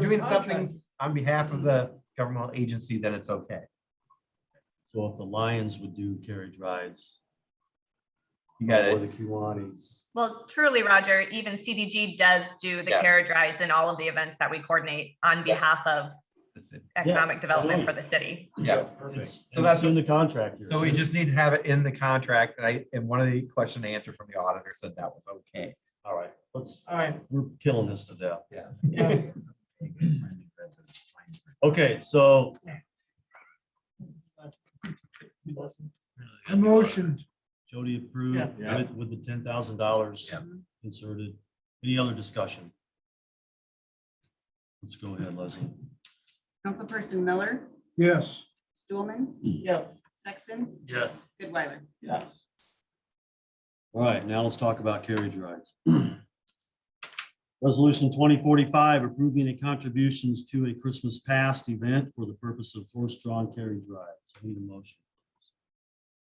doing contract. something on behalf of the governmental agency, then it's okay. So if the Lions would do carriage rides. You got Or it. the Kiwanis. Well, truly, Roger, even CDG does do the Yeah. carriage rides and all of the events that we coordinate on Yeah. behalf of That's it. economic development for Totally. the city. Yeah. It's, So and that's it's in the contract. here, So we too. just need to have it in the contract. And I, and one of the question and answer from the auditor said that was okay. All right, let's, All right, we're killing this to death. yeah, Okay, so I motioned. Jody approved Yeah. Yeah. with, with the ten thousand dollars Yeah. inserted. Any other discussion? Let's go ahead, Leslie. Councilperson Miller, Yes. Stulman, Yeah. Sexton, Yes. Goodweiler. Yes. All right, now let's talk about carriage rides. Resolution twenty forty-five, approving the contributions to a Christmas past event for the purpose of horse-drawn carriage rides. I Need a motion.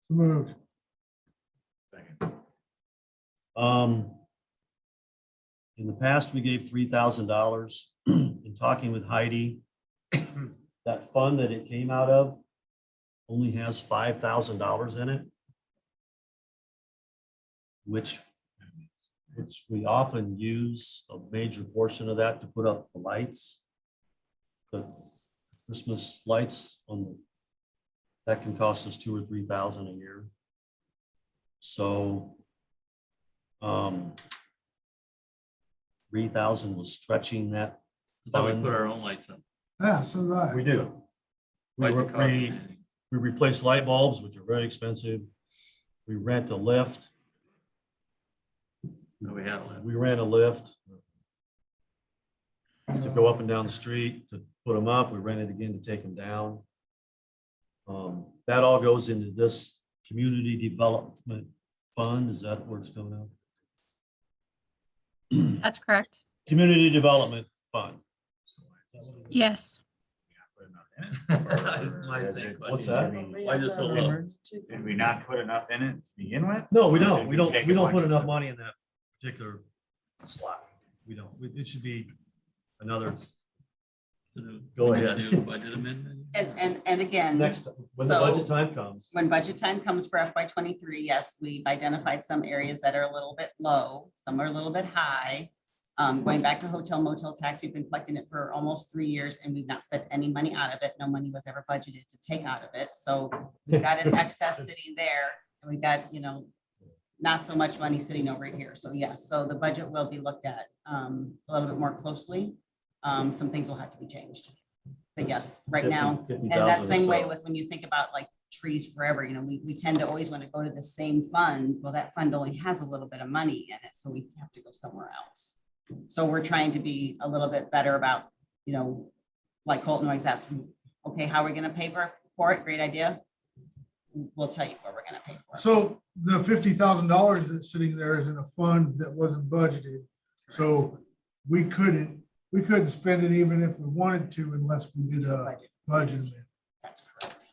Moved. Second. Um, in the past, we gave three thousand dollars. In talking with Heidi, that fund that it came out of only has five thousand dollars in it. Which, which we often use a major portion of that to put up the lights. The Christmas lights on the, that can cost us two or three thousand a year. So um, three thousand was stretching that. So we fund. put our own lights on. Yeah, Ah, so that. We do. We, Lights re- that cost us we, anything. we replace light bulbs, which are very expensive. We rent a lift, So we had a lift. we ran a lift to go up and down the street to put them up. We rented again to take them down. Um, that all goes into this community development fund. Is that where it's coming out? That's correct. Community Development Fund. Yes. My same question. What's that? Why just a little? Did we not put enough in it to begin with? No, we Or don't. did We don't, take we a don't bunch put of enough stuff? money in that particular slot. We don't. We- It should be another Go ahead. Do Budget amendment? And, and, and again, next, when the budget time comes. Mm-hmm. when budget time comes for FY twenty-three, yes, we've identified some areas that are a little bit low, some are a little bit high. Um, going back to hotel motel tax, we've been collecting it for almost three years and we've not spent any money out of it. No money was ever budgeted to take out of it. So we've got an excess sitting there and we've got, you know, not so much money sitting over here. So yes, so the budget will be looked at, um, a little bit more closely. Um, some things will have to be changed. But yes, right now, and that same way with when you think about like trees forever, you know, we, we tend to always want to go to the same fund. Well, that fund only has a little bit of money in it, so we have to go somewhere else. So we're trying to be a little bit better about, you know, like Colton always asks, okay, how are we gonna pay for, for it? Great idea. We'll tell you what we're gonna pay for. it. So the fifty thousand dollars that's sitting there is in a fund that wasn't budgeted. So we couldn't, we couldn't spend it even if we wanted to unless we did a Budget. budget. amendment. That's correct.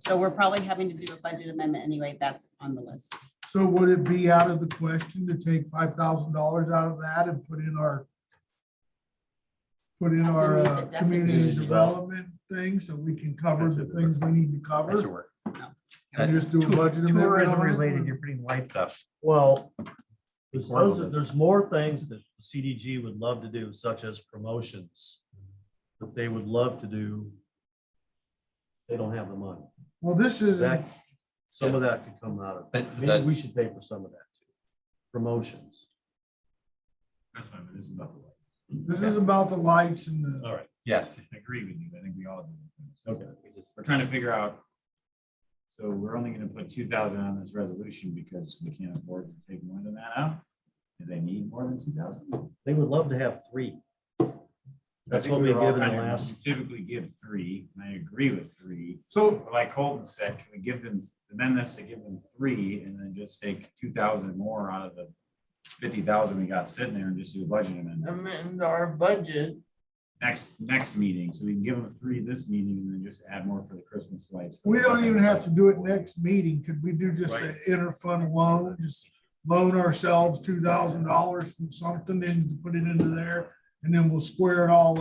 So we're probably having to do a budget amendment anyway. That's on the list. So would it be out of the question to take five thousand dollars out of that and put in our put in Have to our meet uh, the community definition. development thing so we can cover the That's a- things we need to That should cover? work. And just do a budget amendment on Tourism it? related, you're putting lights up. Well, It's there's, horrible those- business. there's more things that CDG would love to do, such as promotions. That they would love to do. They don't have the money. Well, this Mm-hmm. is, That, some of that could come out of, But maybe that's- we should pay for some of that. too. Promotions. That's fine, but this is about the lights. this is about the lights and the, All right. Yes. I agree with you. I think we all do. Okay. We just- We're trying to figure out. So we're only gonna put two thousand on this resolution because we can't afford to take more than that out. Do they need more than two thousand? They would love to have three. That's what we gave in the last. Typically give three, and I agree with three. so, But like Colton said, can we give them, amend this to give them three and then just take two thousand more out of the fifty thousand we got sitting there and just do a budget amendment? amend our budget. next, next meeting, so we can give them three this meeting and then just add more for the Christmas lights. We don't even have to do it next meeting. Could we do just an Right. interfund loan, just loan ourselves two thousand dollars from something and put it into there? And then we'll square it all